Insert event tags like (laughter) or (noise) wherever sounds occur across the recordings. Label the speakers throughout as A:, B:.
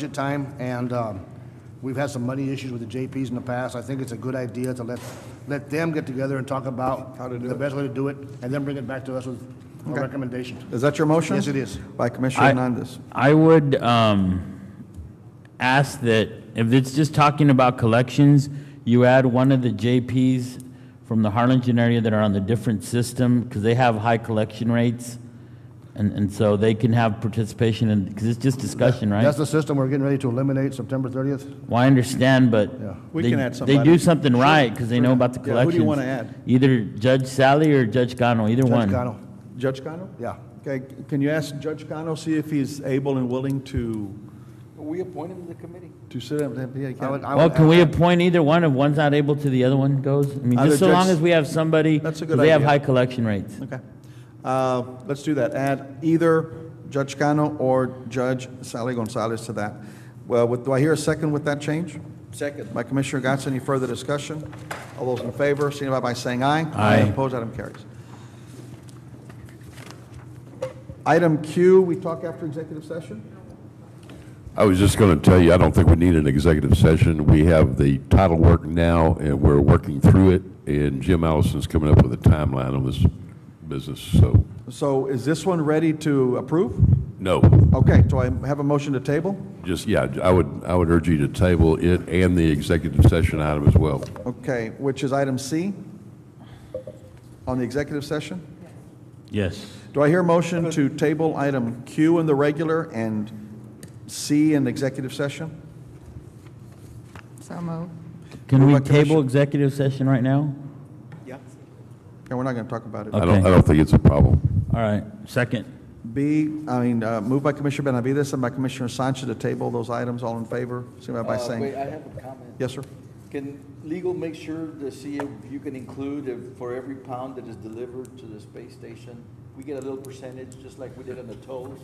A: budget time, and um, we've had some money issues with the JPs in the past. I think it's a good idea to let, let them get together and talk about
B: How to do
A: the
B: it.
A: best way to do it, and then bring it back to us with a recommendation.
B: Is that your motion?
A: Yes, it is.
B: By Commissioner Hernandez.
C: I would um, ask that, if it's just talking about collections, you add one of the JPs from the Harlingen area that are on the different system, because they have high collection rates, and, and so they can have participation in, because it's just discussion, right?
A: That's the system we're getting ready to eliminate September 30th.
C: Well, I understand, but
D: We
C: they-
D: can add
C: They
D: somebody.
C: do something right, because they know about the
B: Yeah, who
C: collections.
B: do you wanna add?
C: Either Judge Sally or Judge Gano, either
A: Judge
C: one.
A: Cano,
B: Judge Cano?
A: yeah.
B: Okay, can you ask Judge Cano, see if he's able and willing to,
E: We appoint him to the committee.
B: to sit up? yeah, he
A: I would-
B: can.
A: I would
C: Well, can
A: add
C: we
A: that.
C: appoint either one? If one's not able to, the other one goes? I mean,
B: Either
C: just so long
B: Judge-
C: as we have somebody,
B: That's a
C: 'cause
B: good
C: they have
B: idea.
C: high collection rates.
B: Okay. Uh, Let's do that. Add either Judge Cano or Judge Sally Gonzalez to that. Well, with- do I hear a second with that change?
D: Second.
B: By Commissioner Gatz, any further discussion? All those in favor, signify by saying aye.
C: Aye.
B: Opposed, item carries. Item Q, we talk after executive session?
F: I was just going to tell you, I don't think we need an executive session. We have the title work now, and we're working through it, and Jim Allison's coming up with a timeline on this business, so,
B: So is this one ready to approve?
F: no.
B: Okay, do I have a motion to table?
F: Just, yeah, I would, I would urge you to table it and the executive session item as well.
B: Okay, which is item C on the executive session?
C: Yes.
B: Do I hear a motion to table item Q in the regular and C in executive session?
G: So moved.
C: Can
B: Move
C: we
B: by Commissioner-
C: table executive session right now?
B: Okay, we're not going to talk about it.
F: I don't,
C: Okay.
F: I don't think it's a problem.
C: All right, second.
B: B, I mean, uh, moved by Commissioner Benavides and by Commissioner Sanchez to table those items, all in favor, signify by
E: Uh, Wait,
B: saying,
E: I have a comment.
B: yes, sir?
E: Can legal make sure to see if you can include if for every pound that is delivered to the space station, we get a little percentage, just like we did on the tolls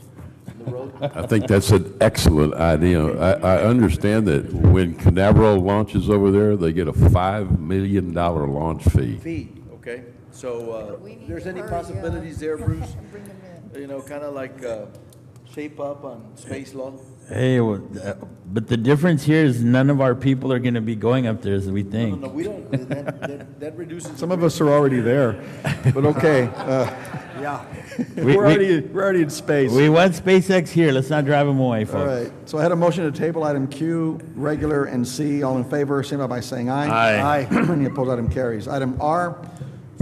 E: on
B: (laughs)
E: the road?
F: I think that's an excellent idea. I, I understand that when Canaveral launches over there, they get a $5 million launch fee.
E: Feet, okay? So, uh,
G: We need
E: there's
G: to
E: any
G: hurry
E: possibilities there,
G: (laughs)
E: Bruce?
G: Bring him in.
E: You know, kind of like, uh, shape up on space law?
C: Hey, well, uh, but the difference here is none of our people are going to be going up there as we
E: No,
C: think.
E: no, we don't, that, that, that reduces.
B: Some of us are already there, but okay. uh,
E: (laughs)
A: Yeah.
C: We-
B: (laughs) We're
C: We
B: already, we're already in space.
C: we want SpaceX here, let's not drive them away,
B: All
C: folks.
B: right, so I had a motion to table item Q, regular, and C. All in favor, signify by saying aye.
A: Aye. Aye.
B: (clears throat) Any opposed, item carries. Item R,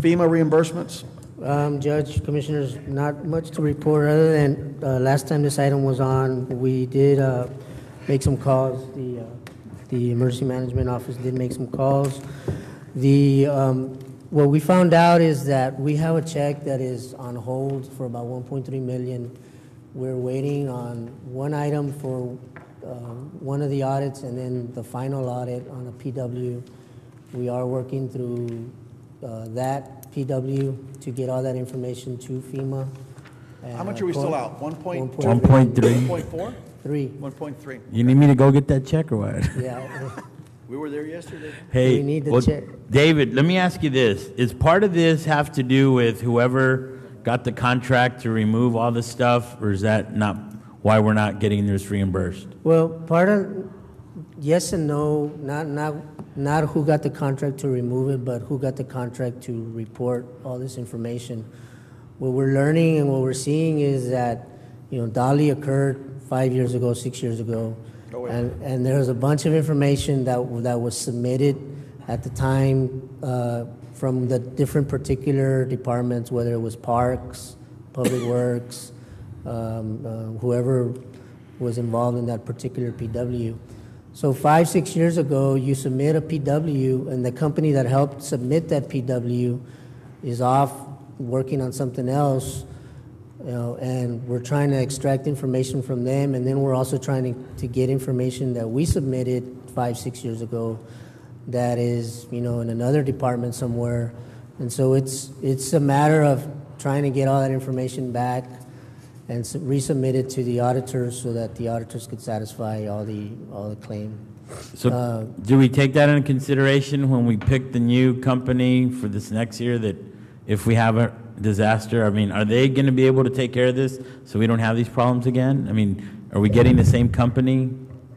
B: FEMA reimbursements.
H: Um, Judge, Commissioners, not much to report, other than, uh, last time this item was on, we did, uh, make some calls. The, uh, the Emergency Management Office did make some calls. The, um, what we found out is that we have a check that is on hold for about one point three million. We're waiting on one item for, uh, one of the audits, and then the final audit on a PW. We are working through uh, that PW to get all that information to FEMA. Uh,
B: How much are we still out? 1.2?
C: 1.3.
B: 1.4?
H: 1.3,
B: 1.3.
C: You need me to go get that check or what?
H: yeah.
E: We were there yesterday.
C: Hey,
H: We need to
C: well,
H: check.
C: David, let me ask you this. Is part of this have to do with whoever got the contract to remove all the stuff, or is that not why we're not getting this reimbursed?
H: Well, part of, yes and no, not, not, not who got the contract to remove it, but who got the contract to report all this information. What we're learning and what we're seeing is that, you know, Dolly occurred five years ago, six years ago. And, and there was a bunch of information that, w- that was submitted at the time uh, from the different particular departments, whether it was parks, public works, um, uh, whoever was involved in that particular PW. So five, six years ago, you submit a PW, and the company that helped submit that PW is off working on something else, you know, and we're trying to extract information from them, and then we're also trying to, to get information that we submitted five, six years ago that is, you know, in another department somewhere. And so it's, it's a matter of trying to get all that information back and s- resubmit it to the auditors so that the auditors could satisfy all the, all the claim. Uh,
C: So do we take that into consideration when we pick the new company for this next year, that if we have a disaster, I mean, are they going to be able to take care of this so we don't have these problems again? I mean, are we getting the same company?